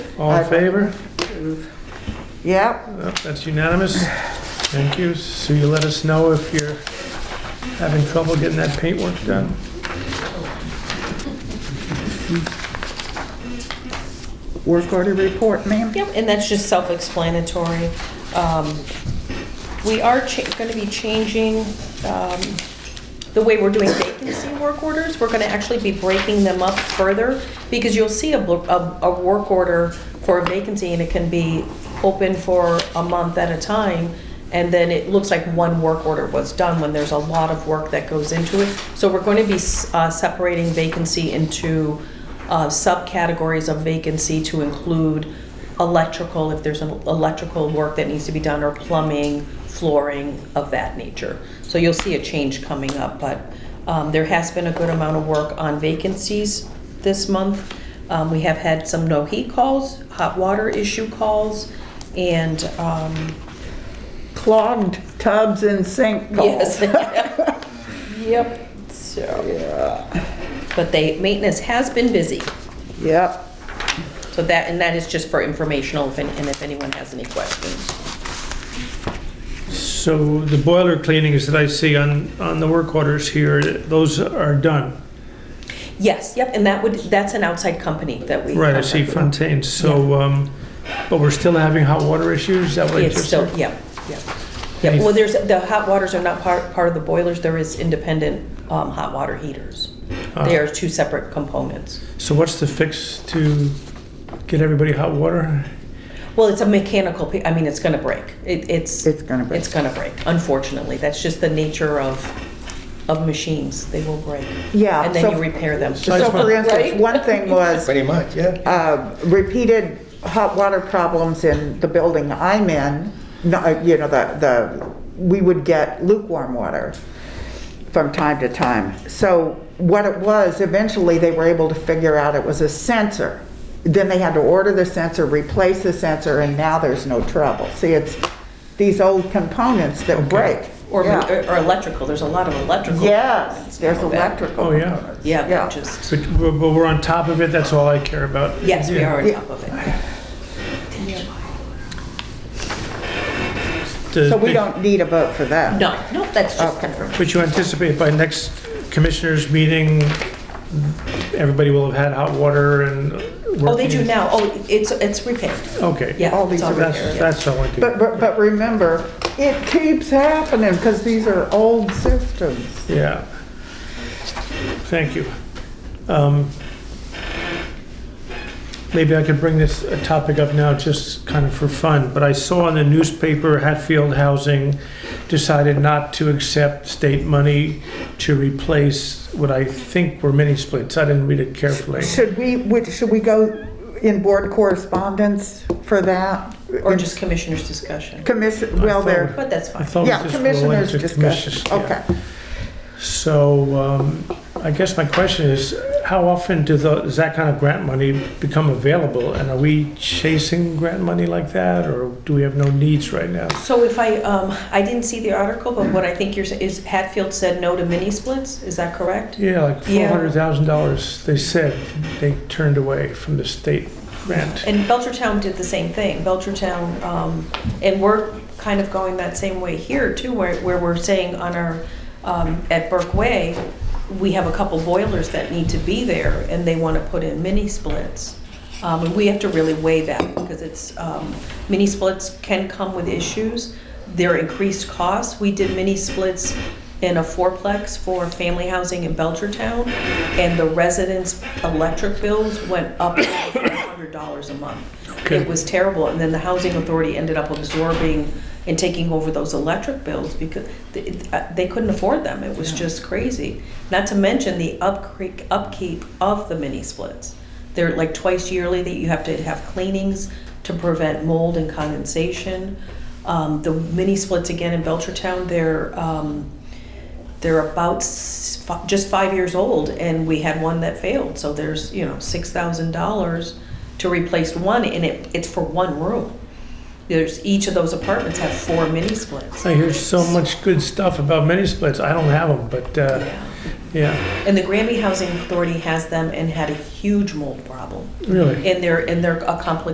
All in favor? Yep, Well, That's unanimous. Thank you. So you let us know if you're having trouble getting that paintwork done. work order report, ma'am? Yep, and that's just self-explanatory. Um, We are going to be changing um, the way we're doing vacancy work orders. We're going to actually be breaking them up further because you'll see a bl- a a work order for a vacancy and it can be open for a month at a time. And then it looks like one work order was done when there's a lot of work that goes into it. So we're going to be s- uh, separating vacancy into uh, subcategories of vacancy to include electrical, if there's an electrical work that needs to be done, or plumbing, flooring, of that nature. So you'll see a change coming up, but um, there has been a good amount of work on vacancies this month. Um, We have had some no-heat calls, hot water issue calls, and, um, Clogged tubs and sink yes. calls. Yep, so, Yeah. but they, maintenance has been busy. Yep, So that, and that is just for informational, if any- and if anyone has any questions. So the boiler cleanings that I see on, on the work orders here, those are done. Yes, yep, and that would, that's an outside company that we. Right, I see contract Fontaine. So, um, but we're still having hot water issues? Is that with. what I It's just still, heard? yep, yep. Yep, well, there's, the hot waters are not part, part of the boilers, there is independent, um, hot water heaters. Ah. They are two separate components. So what's the fix to get everybody hot water? Well, it's a mechanical, pi- I mean, it's gonna break. It, it's, it's gonna be. it's gonna break, unfortunately. That's just the nature of, of machines, they will break. Yeah, And then so- you repair them. I So just for want- instance, Right? one thing was, Pretty much, yeah. uh, repeated hot water problems in the building I'm in, no, uh, you know, the, the, we would get lukewarm water from time to time. So what it was, eventually they were able to figure out it was a sensor. Then they had to order the sensor, replace the sensor, and now there's no trouble. See, it's these old components that break. Or, Yeah. or electrical, there's a lot of electrical. Yes, there's Go back. electrical. Oh, yeah. Yeah, Yeah. but just, But we're, but we're on top of it, that's all I care about. yes, we Yeah. are on Yeah. top of it. The- So we the- don't need a vote for that. No, no, that's just Okay. confirmed. But you anticipate by next commissioners' meeting, everybody will have had hot water and. Oh, they do working- now, oh, it's, it's repaired, Okay. yeah. All these it's all are That's, repaired, yeah. that's all I do. But, but, but remember, it keeps happening because these are old systems. Yeah. Thank you. Um, Maybe I could bring this uh, topic up now just kind of for fun, but I saw in the newspaper Hatfield Housing decided not to accept state money to replace what I think were mini splits. I didn't read it carefully. Should we, would- should we go in board correspondence for that? Or just commissioners' discussion, Commission, well, there, but that's I fine. thought yeah, it was just related commissioners to commissioners. discussion, okay. So um, I guess my question is, how often do the, does that kind of grant money become available? And are we chasing grant money like that, or do we have no needs right now? So if I, um, I didn't see the article, but what I think you're, sa- is Hatfield said no to mini splits, is that correct? Yeah, like four Yeah. hundred thousand dollars, they said they turned away from the state grant. And Belchertown did the same thing. Belchertown, um, and we're kind of going that same way here too, where, where we're saying on our, um, at Burke Way, we have a couple boilers that need to be there and they want to put in mini splits. Um, and we have to really weigh that because it's, um, mini splits can come with issues. They're increased costs. We did mini splits in a fourplex for family housing in Belchertown, and the residents' electric bills went up over $400 a month. Okay. It was terrible, and then the housing authority ended up absorbing and taking over those electric bills because th- it- uh, they couldn't afford them. It was just crazy. Not to mention the upcre- upkeep of the mini splits. They're like twice yearly that you have to have cleanings to prevent mold and condensation. Um, the mini splits again in Belchertown, they're um, they're about s- fi- just five years old, and we had one that failed. So there's you know six thousand dollars to replace one, and it, it's for one room. There's each of those apartments have four mini splits. I hear so much good stuff about mini splits. I don't have them, but, uh, Yeah. yeah, And the Granby Housing Authority has them and had a huge mold problem. really. And they're and they're a complicated